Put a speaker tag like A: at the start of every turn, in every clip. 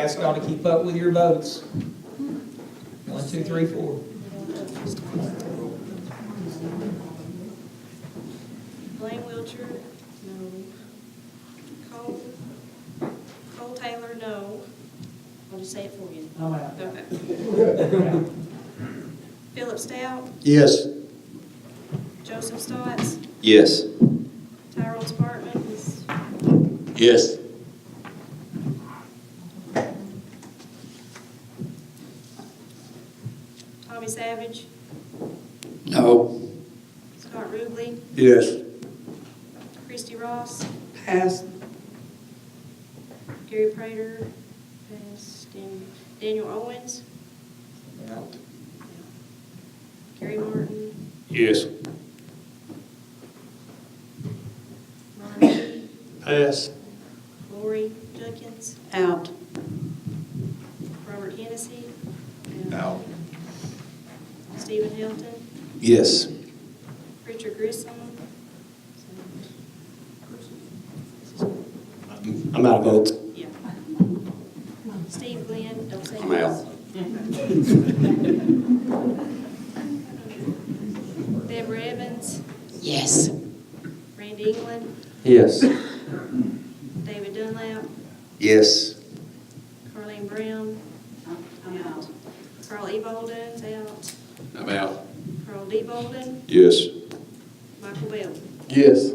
A: Ask y'all to keep up with your votes. One, two, three, four.
B: Blaine Wiltshire, no. Cole, Cole Taylor, no. I'll just say it for you.
C: I'm out.
B: Okay. Philip Stout,
D: Yes.
B: Joseph Stotts,
D: Yes.
B: Tyrone Spartman, is-
D: Yes.
B: Tommy Savage,
D: No.
B: Scott Ruble,
D: Yes.
B: Christie Ross,
C: Pass.
B: Gary Prater, passed, and Daniel Owens,
A: Out.
B: Gary Martin,
D: Yes.
B: Ron Lee,
D: Pass.
B: Lori Jenkins,
C: Out.
B: Robert Hennessy. and
D: Out.
B: Stephen Hilton.
D: Yes.
B: Richard Grissom.
D: I'm out of votes.
B: Yeah. Steve Glenn, don't say.
D: I'm out.
B: Deborah Evans,
C: Yes.
B: Randy England,
D: Yes.
B: David Dunlap,
D: Yes.
B: Carleen Brown. I'm out. Carl E. Bolden's out.
D: I'm out.
B: Carl D. Bolden,
D: Yes.
B: Michael Bell.
D: Yes.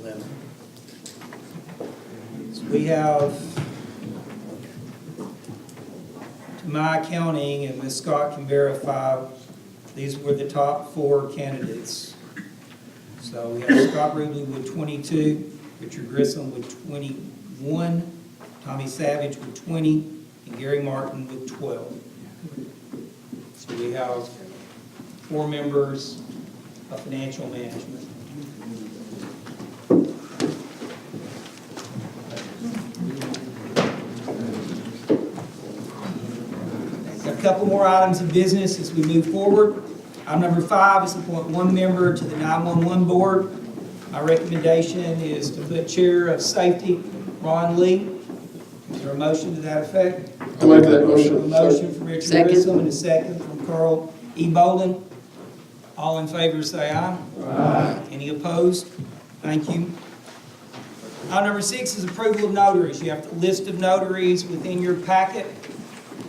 B: Eleven, yes.
A: So we have, to my accounting, and Ms. Scott can verify, these were the top four candidates. So we have Scott Ruble with twenty-two, Richard Grissom with twenty-one, Tommy Savage with twenty, and Gary Martin with twelve. So we have four members of financial management. Got a couple more items of business as we move forward. Item number five is appoint one member to the 911 Board. My recommendation is to put Chair of Safety, Ron Lee. Is there a motion to that effect?
D: I'll make that
A: A
D: motion.
A: motion from Richard
C: Second.
A: Grissom and a second from Carl E. Bolden. All in favor, say aye. Aye. Any opposed? Thank you. Item number six is approval of notaries. You have the list of notaries within your packet.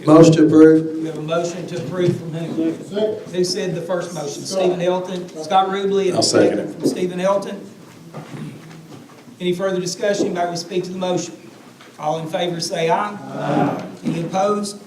D: Motion to approve.
A: We have a motion to approve from whom? Who said the first motion? Stephen Elton, Scott Ruble, and
D: I'll
A: a
D: second
A: second from Stephen Elton. Any further discussion? Anybody will speak to the motion? All in favor, say aye. Aye. Any opposed?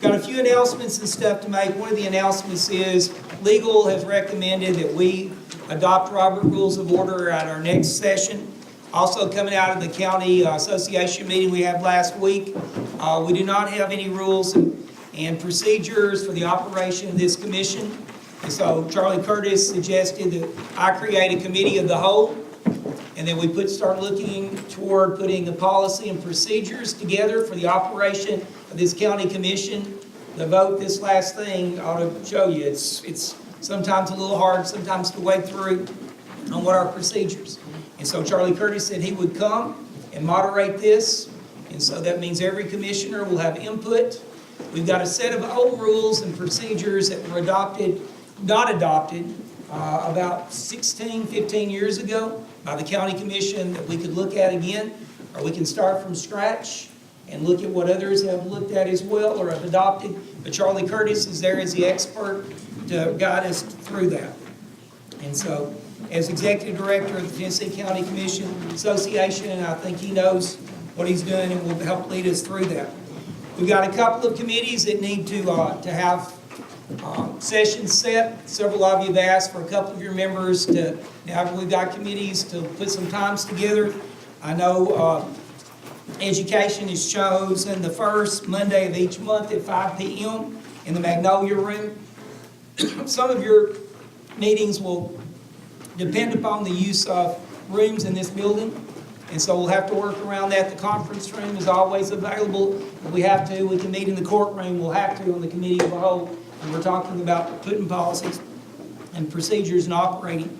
A: Got a few announcements and stuff to make. One of the announcements is legal has recommended that we adopt Robert Rules of Order at our next session. Also coming out of the county uh, association meeting we had last week, uh, we do not have any rules and- and procedures for the operation of this commission. And so Charlie Curtis suggested that I create a committee of the whole and then we put, start looking toward putting a policy and procedures together for the operation of this county commission. The vote, this last thing, ought to show you, it's, it's sometimes a little hard, sometimes to wade through on what our procedures. And so Charlie Curtis said he would come and moderate this, and so that means every commissioner will have input. We've got a set of old rules and procedures that were adopted, not adopted, uh, about 16, 15 years ago by the county commission that we could look at again, or we can start from scratch and look at what others have looked at as well or have adopted. But Charlie Curtis is there as the expert to guide us through that. And so, as executive director of the Tennessee County Commission Association, and I think he knows what he's doing and will help lead us through that. We've got a couple of committees that need to, uh, to have, um, sessions set. Several of you have asked for a couple of your members to, now we've got committees to put some times together. I know, uh, Education is chosen the first Monday of each month at five P M. in the Magnolia Room. Some of your meetings will depend upon the use of rooms in this building, and so we'll have to work around that. The conference room is always available. If we have to, we can meet in the courtroom, we'll have to on the committee of the whole. And we're talking about putting policies and procedures and operating